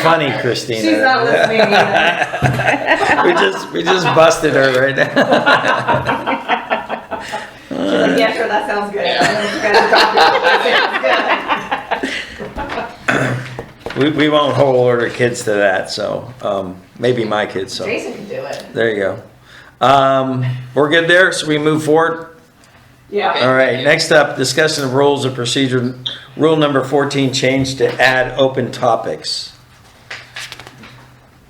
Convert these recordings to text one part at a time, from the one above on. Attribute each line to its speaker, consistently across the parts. Speaker 1: funny, Christina.
Speaker 2: She's not listening either.
Speaker 1: we just we just busted her right now.
Speaker 2: Yeah, sure, that sounds good. That
Speaker 1: we, we won't hold order kids to that, so um, maybe my kids.
Speaker 2: sounds good.
Speaker 1: So
Speaker 2: Jason can do it.
Speaker 1: there you go. Um, we're good there. So we move forward.
Speaker 2: Yeah.
Speaker 1: All right. Next up, discussion of rules of procedure. Rule number fourteen changed to add open topics.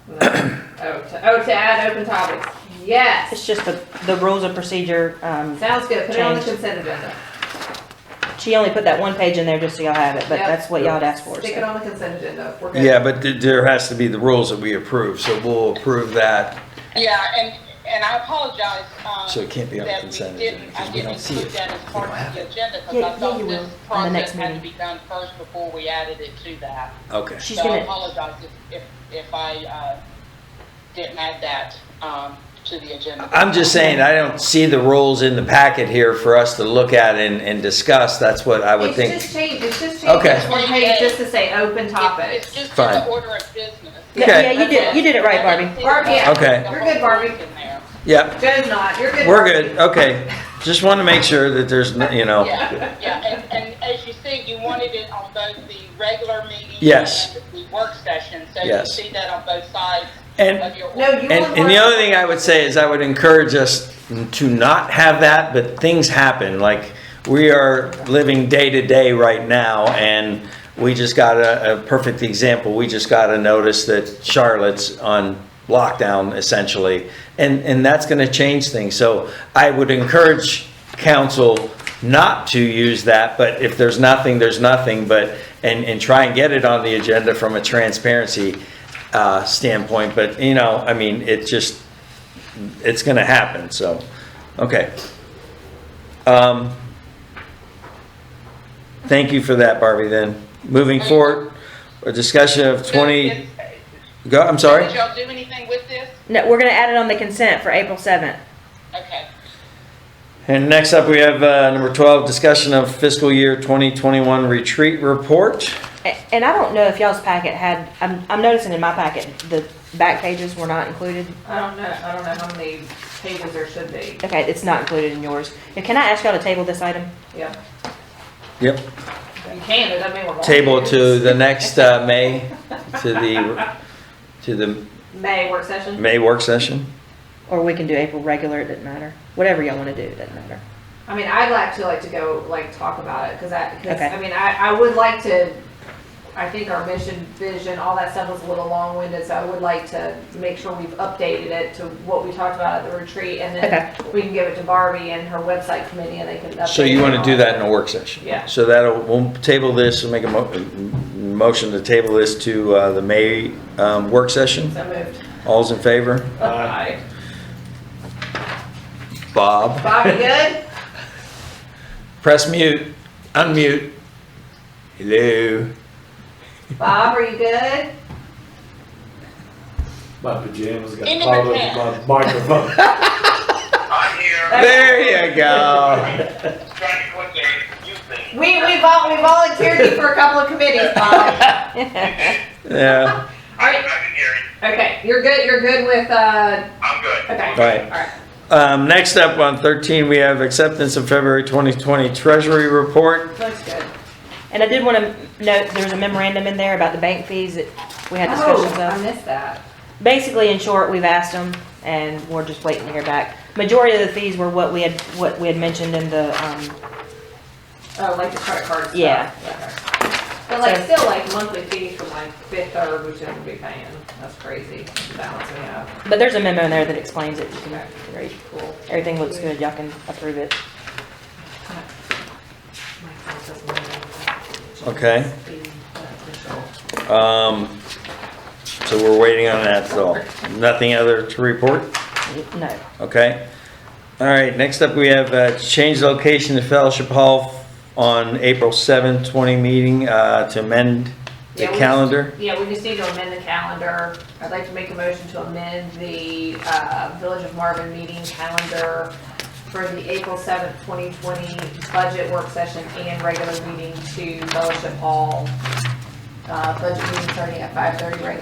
Speaker 2: Oh, to, oh, to add open topics. Yes.
Speaker 3: It's just the, the rules of procedure, um,
Speaker 2: Sounds good. Put it on the
Speaker 3: Changed.
Speaker 2: consent agenda.
Speaker 3: she only put that one page in there just so y'all have it, but
Speaker 2: Yep.
Speaker 3: that's what y'all had asked for.
Speaker 2: Stick
Speaker 3: so.
Speaker 2: it on the consent agenda. We're good.
Speaker 1: Yeah, but th- there has to be the rules that we approve. So we'll approve that.
Speaker 4: Yeah, and, and I apologize, um.
Speaker 1: So it can't be on
Speaker 4: that we
Speaker 1: consent
Speaker 4: didn't-
Speaker 1: agenda, 'cause
Speaker 4: I
Speaker 1: we don't
Speaker 4: didn't
Speaker 1: see
Speaker 4: include
Speaker 1: it.
Speaker 4: that as part of the agenda,
Speaker 3: Yeah,
Speaker 4: because I
Speaker 3: yeah,
Speaker 4: thought
Speaker 3: you will,
Speaker 4: this
Speaker 3: on the next
Speaker 4: process had to
Speaker 3: meeting.
Speaker 4: be done first before we added it to that.
Speaker 1: Okay.
Speaker 3: She's
Speaker 4: So I
Speaker 3: gonna-
Speaker 4: apologize if, if, if I, uh, didn't add that, um, to the agenda.
Speaker 1: I'm just saying, I don't see the rules in the packet here for us to look at and, and discuss. That's what I would
Speaker 2: It's
Speaker 1: think.
Speaker 2: just changed, it's just changed.
Speaker 1: Okay.
Speaker 2: It's one page just to say open
Speaker 4: It's-
Speaker 2: topics.
Speaker 4: It's just in
Speaker 1: Fine.
Speaker 4: the order of business.
Speaker 3: Yeah,
Speaker 1: Okay.
Speaker 3: yeah, you did, you did it right, Barbie.
Speaker 2: Barbie, yeah.
Speaker 1: Okay.
Speaker 2: You're good, Barbie.
Speaker 4: In there.
Speaker 1: Yep,
Speaker 2: Joe's not, you're good.
Speaker 1: we're good. Okay. Just want to make sure that there's, n- you know,
Speaker 4: Yeah, yeah, and, and as you see, you wanted it on both the regular meeting.
Speaker 1: Yes.
Speaker 4: And the work session, so you
Speaker 1: Yes.
Speaker 4: see that on both sides
Speaker 1: and,
Speaker 4: of your.
Speaker 2: No, you
Speaker 1: and,
Speaker 2: want.
Speaker 1: and the other thing I would say is I would encourage us to not have that, but things happen. Like, we are living day to day right now and we just got a, a perfect example. We just got a notice that Charlotte's on lockdown essentially. And, and that's going to change things. So I would encourage council not to use that, but if there's nothing, there's nothing, but, and, and try and get it on the agenda from a transparency uh, standpoint, but, you know, I mean, it just, it's gonna happen, so, okay. Um, Thank you for that, Barbie, then. Moving forward, a discussion of
Speaker 4: So,
Speaker 1: twenty,
Speaker 4: is-
Speaker 1: go, I'm sorry?
Speaker 4: Did y'all do anything with this?
Speaker 3: No, we're gonna add it on the consent for April seventh.
Speaker 4: Okay.
Speaker 1: And next up, we have, uh, number twelve, discussion of fiscal year twenty twenty-one retreat report.
Speaker 3: And I don't know if y'all's packet had, I'm, I'm noticing in my packet, the back pages were not included.
Speaker 2: I don't know, I don't know how many pages there should be.
Speaker 3: Okay, it's not included in yours. Now, Can I ask y'all to table this item?
Speaker 2: Yeah,
Speaker 1: Yep.
Speaker 2: you can, it doesn't mean we're. wrong.
Speaker 1: Table to the next, uh, May, to the, to the
Speaker 2: May work session.
Speaker 1: May work session.
Speaker 3: Or we can do April regular, it doesn't matter. Whatever y'all wanna do, it doesn't matter.
Speaker 2: I mean, I'd like to like to go like talk about it because I because
Speaker 3: Okay.
Speaker 2: I mean I, I would like to. I think our mission, vision, all that stuff was a little long-winded, so I would like to make sure we've updated it to what we talked about at the retreat, and then we can give it to Barbie and her website committee, and they can. Update
Speaker 1: So you
Speaker 2: it
Speaker 1: want to
Speaker 2: all.
Speaker 1: do that in a work session?
Speaker 2: Yeah.
Speaker 1: So that'll, we'll table this and make a mo- m- motion to table this to uh, the May um, work session.
Speaker 2: So moved.
Speaker 1: All's in favor?
Speaker 2: Aye.
Speaker 1: Bob?
Speaker 2: Bobby, good.
Speaker 1: Press mute, unmute. Hello?
Speaker 2: Bob, are you good?
Speaker 5: My pajamas got
Speaker 4: In the
Speaker 5: caught up in
Speaker 4: pants.
Speaker 5: my microphone.
Speaker 6: I'm here,
Speaker 1: There you go.
Speaker 6: trying to quit the youth thing.
Speaker 2: We we vol- we volunteered you for a couple of committees, Bob.
Speaker 1: Yeah,
Speaker 2: All
Speaker 6: I, I
Speaker 2: right.
Speaker 6: can hear you.
Speaker 2: Okay, you're good. You're good with uh.
Speaker 6: I'm good.
Speaker 2: Okay. All
Speaker 1: right.
Speaker 2: right.
Speaker 1: Um, Next up on 13, we have acceptance of February 2020 Treasury Report.
Speaker 2: Looks good.
Speaker 3: And I did want to note, there was a memorandum in there about the bank fees that we had discussions
Speaker 2: Oh, I
Speaker 3: of.
Speaker 2: missed that.
Speaker 3: Basically, in short, we've asked them and we're just waiting to hear back. Majority of the fees were what we had, what we had mentioned in the, um,
Speaker 2: Oh, like the credit card stuff.
Speaker 3: Yeah.
Speaker 2: But like,
Speaker 3: So-
Speaker 2: still like monthly fees from like fifth or we shouldn't be paying. That's crazy. the Balance we have.
Speaker 3: but there's a memo in there that explains it. You can read.
Speaker 2: Cool.
Speaker 3: Everything looks good. Y'all can approve it.
Speaker 2: My phone doesn't really-
Speaker 1: Okay.
Speaker 2: Be beneficial.
Speaker 1: Um, So we're waiting on that, so nothing other to report?
Speaker 3: No.
Speaker 1: Okay. All right, next up, we have uh, change location to Fellowship Hall on April 7th, 20 meeting uh, to amend the
Speaker 2: Yeah, we-
Speaker 1: calendar.
Speaker 2: Yeah, we just need to amend the calendar. I'd like to make a motion to amend the uh, Village of Marvin meeting calendar for the April 7th, 2020 budget work session and regular meeting to Fellowship Hall. Uh, Budget meeting starting at 5:30, regular